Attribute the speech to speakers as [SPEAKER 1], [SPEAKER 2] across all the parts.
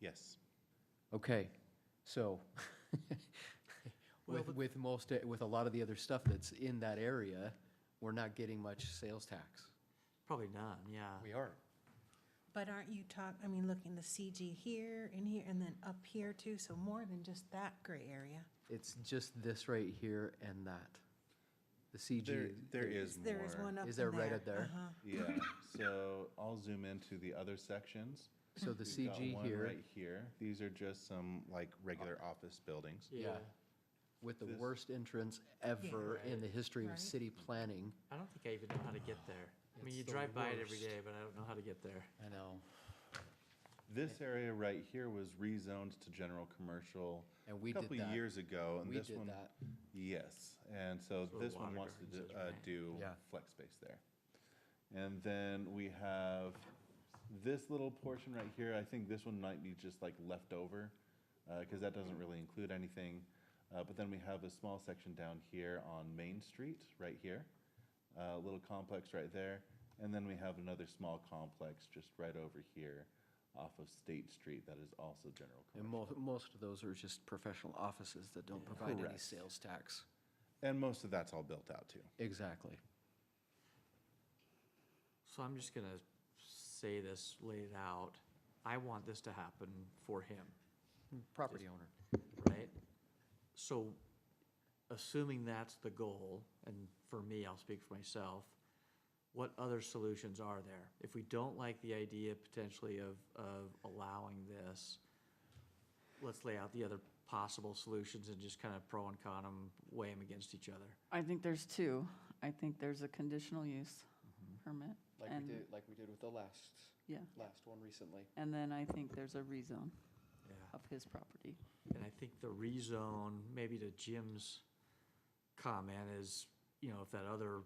[SPEAKER 1] Yes.
[SPEAKER 2] Okay, so
[SPEAKER 3] Well,
[SPEAKER 2] with,
[SPEAKER 3] but-
[SPEAKER 2] with most, with a lot of the other stuff that's in that area, we're not getting much sales tax.
[SPEAKER 3] Probably none, yeah.
[SPEAKER 2] We are.
[SPEAKER 4] But aren't you talk, I mean, looking the CG here and here and then up here too, so more than just that gray area.
[SPEAKER 2] It's just this right here and that. The
[SPEAKER 1] There,
[SPEAKER 2] CG.
[SPEAKER 1] there is more.
[SPEAKER 4] There is one up in there.
[SPEAKER 2] Is there right up there?
[SPEAKER 4] Uh-huh.
[SPEAKER 1] Yeah, so I'll zoom into the other sections.
[SPEAKER 2] So the
[SPEAKER 1] We've got
[SPEAKER 2] CG
[SPEAKER 1] one
[SPEAKER 2] here
[SPEAKER 1] Right here. These are just some like regular office buildings.
[SPEAKER 2] Yeah. with the
[SPEAKER 1] this-
[SPEAKER 2] worst entrance ever in the history of
[SPEAKER 4] Right.
[SPEAKER 2] city planning.
[SPEAKER 3] I don't think I even know how to get there. I mean,
[SPEAKER 2] It's
[SPEAKER 3] you
[SPEAKER 2] the
[SPEAKER 3] drive by it every
[SPEAKER 2] worst.
[SPEAKER 3] day, but I don't know how to get there.
[SPEAKER 2] I know.
[SPEAKER 1] This area right here was rezoned to general commercial
[SPEAKER 2] And
[SPEAKER 1] a
[SPEAKER 2] we did
[SPEAKER 1] couple
[SPEAKER 2] that.
[SPEAKER 1] years ago. and
[SPEAKER 2] We
[SPEAKER 1] this
[SPEAKER 2] did
[SPEAKER 1] one-
[SPEAKER 2] that.
[SPEAKER 1] Yes, and so
[SPEAKER 3] That's what
[SPEAKER 1] this one
[SPEAKER 3] water
[SPEAKER 1] wants to
[SPEAKER 3] gardens
[SPEAKER 1] do-
[SPEAKER 3] is,
[SPEAKER 1] uh,
[SPEAKER 3] right?
[SPEAKER 1] do
[SPEAKER 2] Yeah.
[SPEAKER 1] flex space there. And then we have this little portion right here, I think this one might be just like left over, because that doesn't really include anything. Uh, But then we have a small section down here on Main Street, right here, a little complex right there. And then we have another small complex just right over here off of State Street that is also general
[SPEAKER 2] And
[SPEAKER 1] commercial.
[SPEAKER 2] mo- most of those are just professional offices that don't provide any
[SPEAKER 1] Correct.
[SPEAKER 2] sales tax.
[SPEAKER 1] And most of that's all built out too.
[SPEAKER 2] Exactly.
[SPEAKER 3] So I'm just gonna say this, lay it out. I want this to happen for him,
[SPEAKER 2] Property owner.
[SPEAKER 3] right? So assuming that's the goal, and for me, I'll speak for myself, what other solutions are there? If we don't like the idea potentially of, of allowing this, let's lay out the other possible solutions and just kind of pro and con them, weigh them against each other.
[SPEAKER 5] I think there's two. I think there's a conditional use permit. and-
[SPEAKER 2] like we did with the last,
[SPEAKER 5] Yeah,
[SPEAKER 2] last one recently.
[SPEAKER 5] and then I think there's a rezone
[SPEAKER 3] Yeah.
[SPEAKER 5] of his property.
[SPEAKER 3] And I think the rezone, maybe to Jim's comment is, you know, if that other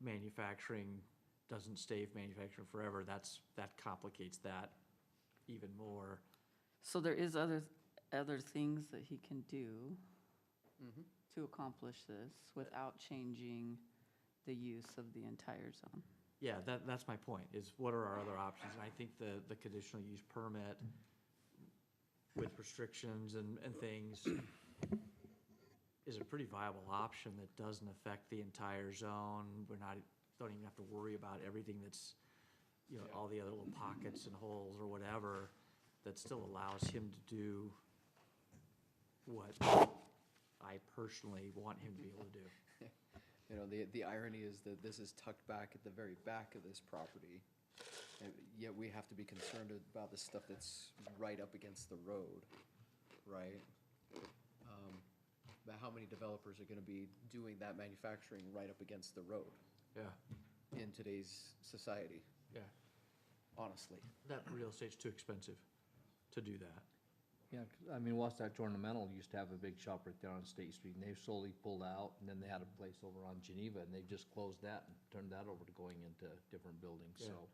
[SPEAKER 3] manufacturing doesn't stay manufacturing forever, that's, that complicates that even more.
[SPEAKER 5] So there is other, other things that he can do to accomplish this without changing the use of the entire zone.
[SPEAKER 3] Yeah, that, that's my point, is what are our other options? And I think the, the conditional use permit with restrictions and, and things is a pretty viable option that doesn't affect the entire zone. We're not, don't even have to worry about everything that's, you know, all the other little pockets and holes or whatever, that still allows him to do what I personally want him to be able to do.
[SPEAKER 2] You know, the, the irony is that this is tucked back at the very back of this property, and yet we have to be concerned about the stuff that's right up against the road, right? Um, But how many developers are gonna be doing that manufacturing right up against the road
[SPEAKER 3] Yeah,
[SPEAKER 2] in today's society,
[SPEAKER 3] yeah.
[SPEAKER 2] honestly?
[SPEAKER 3] That real estate's too expensive to do that.
[SPEAKER 6] Yeah, 'cause, I mean, Wasatch Ornamental used to have a big shop right there on State Street, and they've slowly pulled out, and then they had a place over on Geneva, and they've just closed that and turned that over to going into different buildings,
[SPEAKER 3] Yeah.
[SPEAKER 6] so.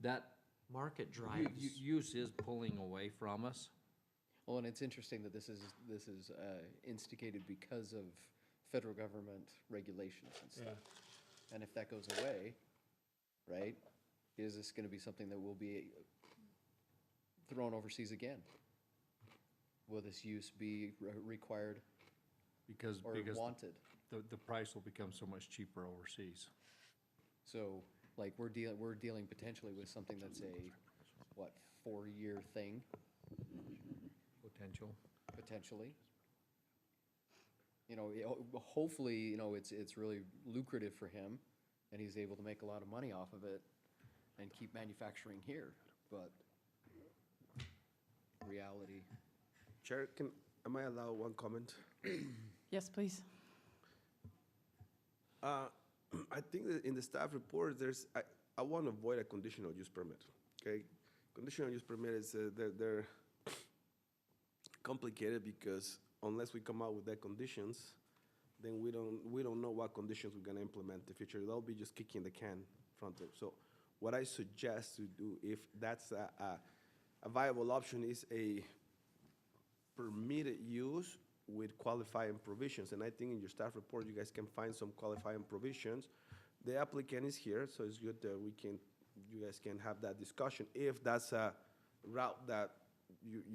[SPEAKER 6] That
[SPEAKER 3] Market
[SPEAKER 6] u-
[SPEAKER 3] drives.
[SPEAKER 6] u- use is pulling away from us.
[SPEAKER 2] Well, and it's interesting that this is, this is uh, instigated because of federal government regulations and stuff. And if that goes away, right, is this gonna be something that will be thrown overseas again? Will this use be re- required
[SPEAKER 6] Because,
[SPEAKER 2] or
[SPEAKER 6] because
[SPEAKER 2] wanted?
[SPEAKER 6] the, the price will become so much cheaper overseas.
[SPEAKER 2] So, like, we're dealing, we're dealing potentially with something that's a, what, four-year thing,
[SPEAKER 6] Potential.
[SPEAKER 2] potentially? You know, it- ho- hopefully, you know, it's, it's really lucrative for him, and he's able to make a lot of money off of it and keep manufacturing here, but reality.
[SPEAKER 7] Chair, can, am I allowed one comment?
[SPEAKER 5] Yes, please.
[SPEAKER 7] Uh, I think that in the staff report, there's, I, I want to avoid a conditional use permit, okay? Conditional use permit is, uh, they're, they're complicated because unless we come out with that conditions, then we don't, we don't know what conditions we're gonna implement in the future. That'll be just kicking the can in front of. So what I suggest to do, if that's a, a- a viable option, is a permitted use with qualifying provisions, and I think in your staff report, you guys can find some qualifying provisions. The applicant is here, so it's good that we can, you guys can have that discussion, if that's a route that you,